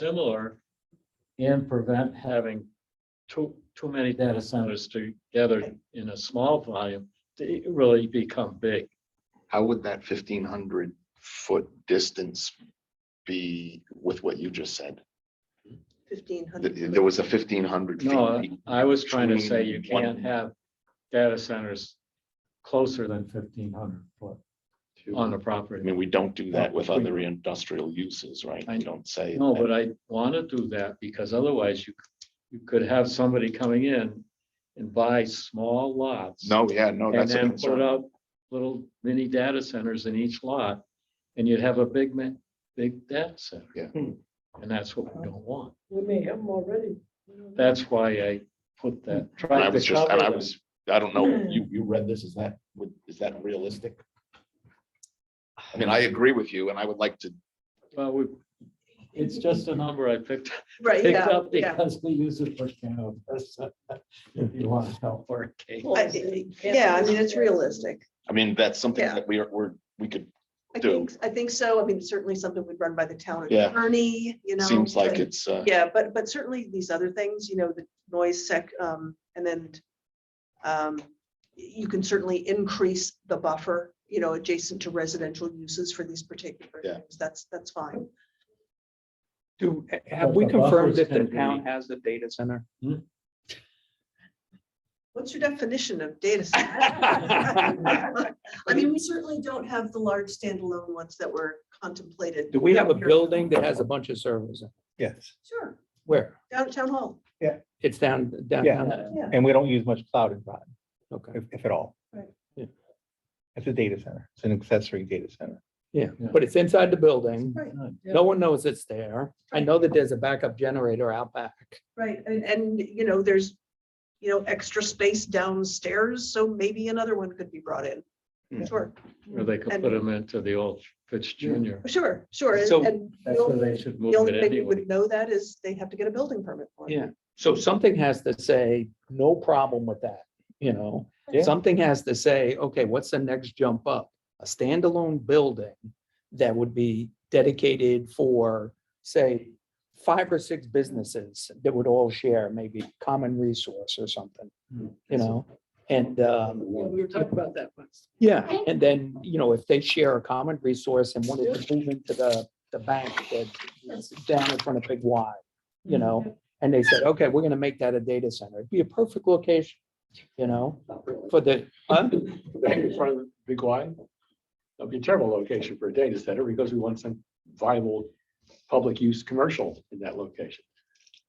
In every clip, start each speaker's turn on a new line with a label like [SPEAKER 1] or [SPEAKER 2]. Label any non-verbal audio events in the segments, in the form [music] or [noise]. [SPEAKER 1] similar and prevent having too, too many data centers together in a small volume to really become big.
[SPEAKER 2] How would that fifteen hundred foot distance be with what you just said?
[SPEAKER 3] fifteen
[SPEAKER 2] Th-
[SPEAKER 3] hundred.
[SPEAKER 2] There was a fifteen hundred
[SPEAKER 1] No, uh,
[SPEAKER 2] feet.
[SPEAKER 1] I was trying to say you
[SPEAKER 2] Between one-
[SPEAKER 1] can't have data centers closer than fifteen hundred foot on the
[SPEAKER 2] I
[SPEAKER 1] property.
[SPEAKER 2] mean, we don't do that with other industrial uses, right?
[SPEAKER 1] I-
[SPEAKER 2] We don't say.
[SPEAKER 1] No,
[SPEAKER 2] that.
[SPEAKER 1] but I want to do that because otherwise you, you could have somebody coming in and buy small lots.
[SPEAKER 2] No, yeah, no,
[SPEAKER 1] And
[SPEAKER 2] Oh, that's a
[SPEAKER 1] then put
[SPEAKER 2] concern.
[SPEAKER 1] up little mini data centers in each lot, and you'd have a big man, big data center.
[SPEAKER 2] Yeah.
[SPEAKER 4] Hmm.
[SPEAKER 1] And that's what we don't want.
[SPEAKER 4] We may have them already.
[SPEAKER 1] That's why I put that.
[SPEAKER 2] And I
[SPEAKER 1] tried to
[SPEAKER 2] was just, and I
[SPEAKER 1] cover
[SPEAKER 2] was, I don't
[SPEAKER 1] [clears throat]
[SPEAKER 2] know, you, you read this, is that, would- is that realistic? I mean, I agree with you and I would like to,
[SPEAKER 1] that. Well, we, it's just a number I picked,
[SPEAKER 3] Right,
[SPEAKER 1] picked
[SPEAKER 3] yeah,
[SPEAKER 1] up
[SPEAKER 3] yeah.
[SPEAKER 1] because we use it for cannabis. [laughs] If you want to help our case.
[SPEAKER 3] I- Yeah, I mean, it's realistic.
[SPEAKER 2] I mean, that's something
[SPEAKER 3] Yeah.
[SPEAKER 2] that we are, we're, we could,
[SPEAKER 3] I
[SPEAKER 2] Do.
[SPEAKER 3] think, I think so. I mean, certainly something we'd run by the town
[SPEAKER 2] Yeah.
[SPEAKER 3] attorney, you know.
[SPEAKER 2] seems like
[SPEAKER 3] but-
[SPEAKER 2] it's, uh,
[SPEAKER 3] Yeah, but, but certainly these other things, you know, the noise sec, um, and then um, y- you can certainly increase the buffer, you know, adjacent to residential uses for these particular
[SPEAKER 2] Yeah.
[SPEAKER 3] things. That's, that's fine.
[SPEAKER 5] Do,
[SPEAKER 1] But
[SPEAKER 5] have we
[SPEAKER 1] the
[SPEAKER 5] confirmed
[SPEAKER 1] buffer's
[SPEAKER 5] that the
[SPEAKER 1] gonna
[SPEAKER 5] town
[SPEAKER 1] be-
[SPEAKER 5] has a data center?
[SPEAKER 3] What's your definition of
[SPEAKER 1] [laughs]
[SPEAKER 3] data center? I mean, we certainly don't have the large standalone ones that were contemplated.
[SPEAKER 5] Do we have a
[SPEAKER 3] Here.
[SPEAKER 5] building that has a bunch of servers? in it?
[SPEAKER 6] Yes,
[SPEAKER 3] Sure,
[SPEAKER 5] Where?
[SPEAKER 3] downtown hall.
[SPEAKER 5] It's down, downtown?
[SPEAKER 3] Yeah,
[SPEAKER 6] and we don't use much cloud in Groton,
[SPEAKER 5] Okay,
[SPEAKER 6] if, if at all.
[SPEAKER 3] Right.
[SPEAKER 5] Yeah.
[SPEAKER 6] It's a data center. It's an accessory data center.
[SPEAKER 5] yeah,
[SPEAKER 1] Yeah.
[SPEAKER 5] but it's inside the building.
[SPEAKER 3] right,
[SPEAKER 1] Hmm.
[SPEAKER 5] No one knows it's there. I know that there's a backup generator out back.
[SPEAKER 3] right. And, and, you know, there's, you know, extra space downstairs, so maybe another one could be brought in.
[SPEAKER 5] Hmm.
[SPEAKER 2] Yeah.
[SPEAKER 3] Sure,
[SPEAKER 1] Or they could put them into the old Fitz Junior.
[SPEAKER 3] sure, sure. and-
[SPEAKER 5] So
[SPEAKER 3] and the
[SPEAKER 1] That's where
[SPEAKER 3] only-
[SPEAKER 1] they should move
[SPEAKER 3] The only
[SPEAKER 1] it
[SPEAKER 3] thing we
[SPEAKER 1] anyway.
[SPEAKER 3] would know that is they have to get a building permit for it.
[SPEAKER 5] Yeah. So something has to say, no problem with that, you know?
[SPEAKER 6] Yeah.
[SPEAKER 5] Something has to say, okay, what's the next jump up? A standalone building that would be dedicated for, say, five or six businesses that would all share maybe common resource or something, you know? And, um,
[SPEAKER 4] We were talking about that once.
[SPEAKER 5] yeah, and then, you know, if they share a common resource and wanted to move into the, the bank that's down in front of Big Y, you know, and they said, okay, we're gonna make that a data center, it'd be a perfect location, you know, for the, huh?
[SPEAKER 7] in front of the big Y. That'd be a terrible location for a data center because we want some viable public use commercial in that location.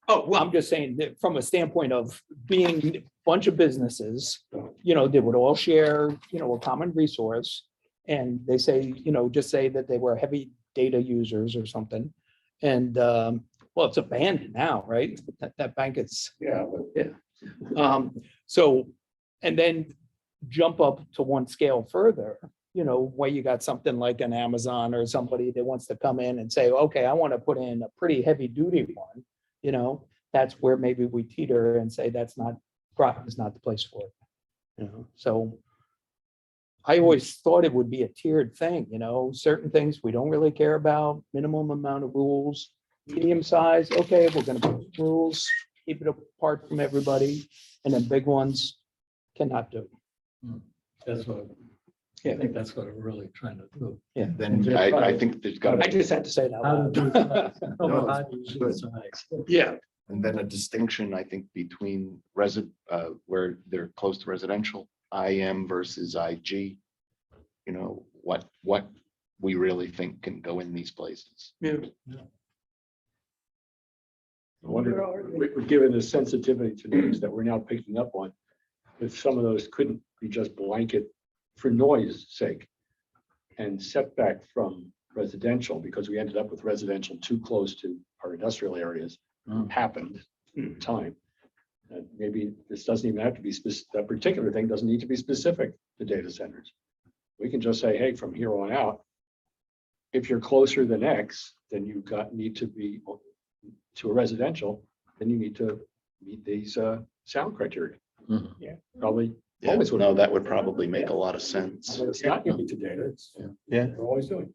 [SPEAKER 5] oh, well, I'm just saying that from a standpoint of being a bunch of businesses, you know, they would all share, you know, a common resource. And they say, you know, just say that they were heavy data users or something. And, um, well, it's abandoned now, right? That, that bank is
[SPEAKER 7] Yeah.
[SPEAKER 5] Um, so, and then jump up to one scale further, you know, where you got something like an Amazon or somebody that wants to come in and say, okay, I want to put in a pretty heavy duty one, you know, that's where maybe we teeter and say, that's not, Groton is not the place for it. You know, so I always thought it would be a tiered thing, you know, certain things we don't really care about, minimum amount of rules, medium size, okay, we're gonna put rules, keep it apart from everybody, and then big ones cannot do.
[SPEAKER 1] That's what, I
[SPEAKER 5] Yeah.
[SPEAKER 1] think that's what I'm really trying to do.
[SPEAKER 2] then I, I think there's got to
[SPEAKER 5] I just had to say that.
[SPEAKER 1] How to
[SPEAKER 5] out
[SPEAKER 1] do
[SPEAKER 5] loud. [laughs]
[SPEAKER 1] size. No,
[SPEAKER 2] No,
[SPEAKER 1] how do you do
[SPEAKER 2] good.
[SPEAKER 1] size?
[SPEAKER 5] Yeah,
[SPEAKER 2] And then a distinction, I think, between resi, uh, where they're close to residential, IM versus IG. You know, what, what we really think can go in these places.
[SPEAKER 7] Wonder, we- we're given the sensitivity to noise that we're now picking up on. If some of those couldn't be just blanket for noise sake. And setback from residential, because we ended up with residential too close to our industrial areas,
[SPEAKER 1] Mm.
[SPEAKER 7] happened in time. And maybe this doesn't even have to be specific, that particular thing doesn't need to be specific to data centers. We can just say, hey, from here on out. If you're closer than X, then you got, need to be to a residential, then you need to meet these uh sound criteria,
[SPEAKER 1] Mhm.
[SPEAKER 7] probably.
[SPEAKER 2] Yeah,
[SPEAKER 7] Always would-
[SPEAKER 2] no, that would probably make a lot of sense.
[SPEAKER 7] It's not unique to data, it's.
[SPEAKER 6] Yeah.
[SPEAKER 7] We're always doing.